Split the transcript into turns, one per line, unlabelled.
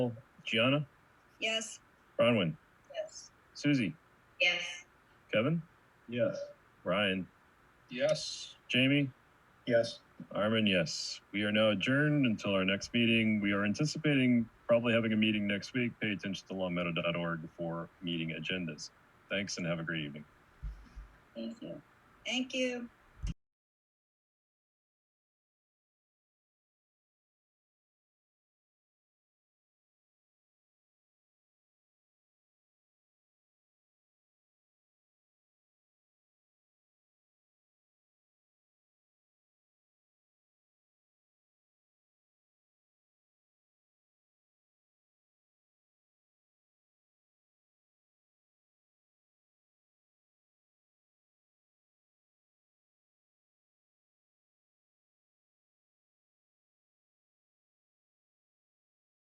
Gianna,
Yes.
Bronwyn,
Yes.
Susie,
Yes.
Kevin,
Yes.
Ryan,
Yes.
Jamie,
Yes.
Armin, yes. We are now adjourned until our next meeting. We are anticipating probably having a meeting next week. Pay attention to longmeadow.org for meeting agendas. Thanks and have a great evening.
Thank you. Thank you.